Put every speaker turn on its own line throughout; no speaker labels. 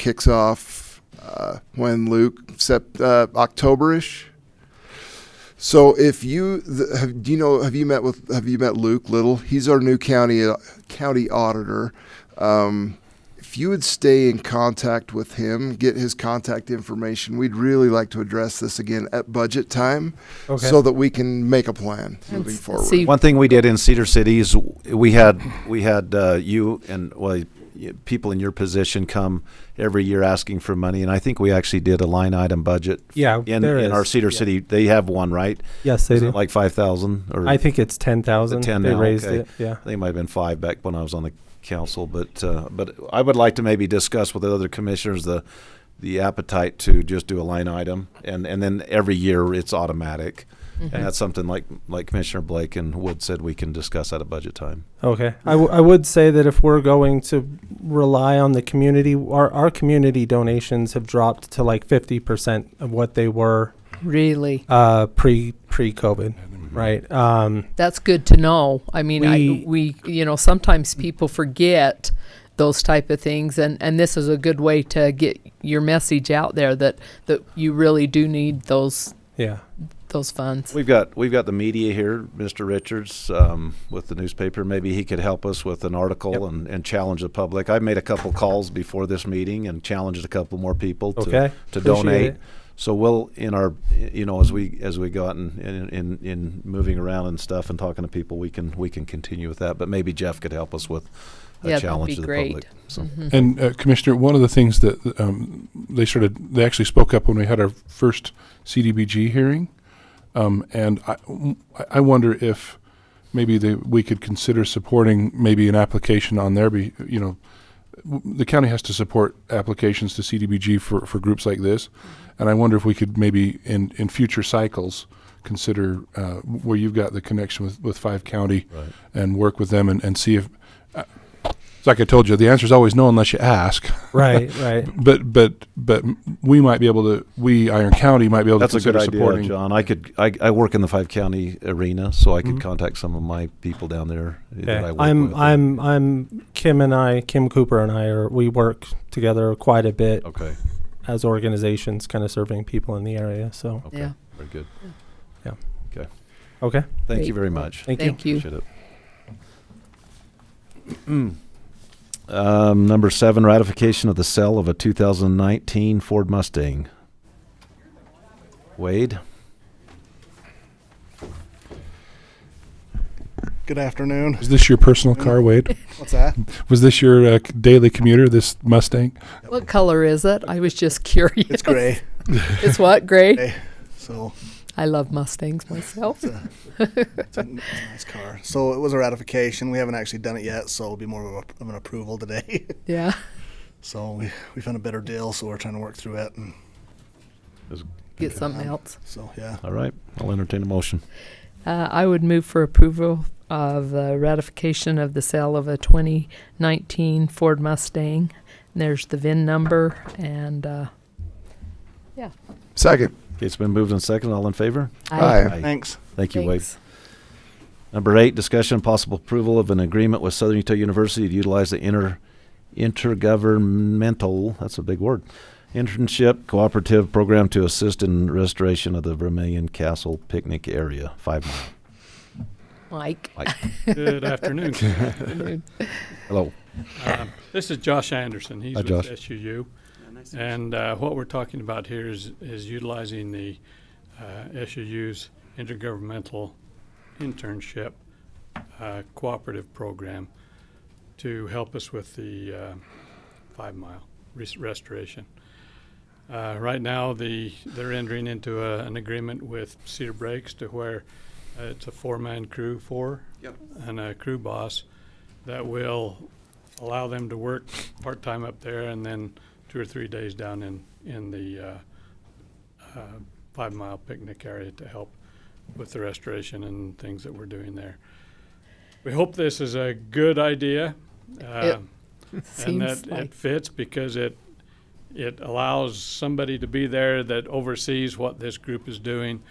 kicks off uh, when Luke sept, uh, Octoberish. So if you th- have, do you know have you met with have you met Luke Little? He's our new county uh, county auditor. Um, if you would stay in contact with him, get his contact information. We'd really like to address this again at budget time,
Okay.
so that we can make a plan moving
s-
forward.
so you-
One thing we did in Cedar City is we had, we had uh, you and, well, y- people in your position come every year asking for money, and I think we actually did a line item budget.
Yeah,
In,
there
in our
is.
Cedar
Yeah.
City, they have one, right?
Yes, they
Is it
do.
Like five thousand or?
I think it's ten thousand.
The 10
They
now,
raised
okay.
it. Yeah.
They might have been five back when I was on the council, but, uh, but I would like to maybe discuss with the other commissioners the, the appetite to just do a line item, and, and then every year it's automatic. And that's something like, like Commissioner Blake and Wood said, we can discuss at a budget time.
Okay. I, w- I would say that if we're going to rely on the community, our our community donations have dropped to like fifty percent of what they were
Really,
uh, pre pre COVID,
Mm-hmm.
right? Um,
that's good to know. I mean, I,
We-
we, you know, sometimes people forget those type of things, and and this is a good way to get your message out there that that you really do need those
yeah.
those funds.
We've got, we've got the media here, Mr. Richards, um, with the newspaper. Maybe he could help us with an article and, and challenge the public. I made a couple calls before this meeting and challenged a couple more people to,
Okay.
to
Appreciate
donate.
it.
So we'll in our you know as we as we go out and in, in in moving around and stuff and talking to people, we can we can continue with that. But maybe Jeff could help us with a
Yeah, that'd
challenge
be
to the
great. Mm-hmm.
public. So
And uh, Commissioner, one of the things that um, they started, they actually spoke up when we had our first CDBG hearing, um, and I, I wonder if maybe they, we could consider supporting maybe an application on their be, you know, w- the county has to support applications to CDBG for, for groups like this, and I wonder if we could maybe in, in future cycles consider uh, where you've got the connection with, with Five County
Right.
and work with them and, and see if. Uh, it's like I told you, the answer is always no unless you ask.
Right. Right.
But but but we might be able to. We Iron County might be able
that's
to
a good
consider
idea,
supporting.
John. I could I, I work in the five county arena, so I could
Mhm.
contact some of my people down there that I
Okay.
work
I'm
with.
I'm I'm Kim and I Kim Cooper and I are we work together quite a bit
okay.
as organizations, kind of serving people in the area. So
Okay.
Yeah.
Very good.
okay,
Thank
Great.
you very much.
thank, you.
Thank you.
Appreciate it. um, number seven, ratification of the sale of a 2019 Ford Mustang. Wade.
Good afternoon.
Is this your personal car, Wade?
What's that?
Was this your uh, c- daily commuter? This Mustang?
What color is it? I was just curious.
It's gray.
It's what gray?
So
I love Mustangs myself.
it's a, it's a nice car. So it was a ratification. We haven't actually done it yet, so it'll be more of, a, of an approval today.
Yeah.
so we, we found a better deal, so we're trying to work through it. And
Get something else.
so, yeah.
All right. I'll entertain a motion.
Uh, I would move for approval of the ratification of the sale of a 2019 Ford Mustang. And There's the VIN number and, uh,
Second,
Okay, it's been moved and second. All in favor?
Aye.
Thanks.
Thank you, Wade.
Thanks.
Number eight, discussion and possible approval of an agreement with Southern Utah University to utilize the inter, intergovernmental, that's a big word, internship cooperative program to assist in restoration of the Vermillion Castle picnic area, five mile.
Mike.
Mike.
Good afternoon.
Hello.
Uh, This is Josh Anderson. He's
Hi,
with
Josh.
SUU. And uh, what we're talking about here is, is utilizing the uh, SUU's intergovernmental internship uh, cooperative program to help us with the uh, Five Mile res- restoration. Uh, Right now, the, they're entering into a- an agreement with Cedar Breaks to where uh, it's a four-man crew, four, and a crew boss that will allow them to work part-time up there and then two or three days down in, in the uh, uh, Five Mile picnic area to help with the restoration and things that we're doing there. We hope this is a good idea. uh, and
Seems
that
like,
it fits because it it allows somebody to be there that oversees what this group is doing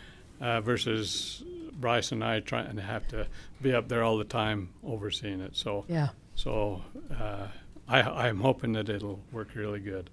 uh, versus Bryce and I trying to have to be up there all the time overseeing it. So
yeah.
so uh, I I'm hoping that it'll work really good.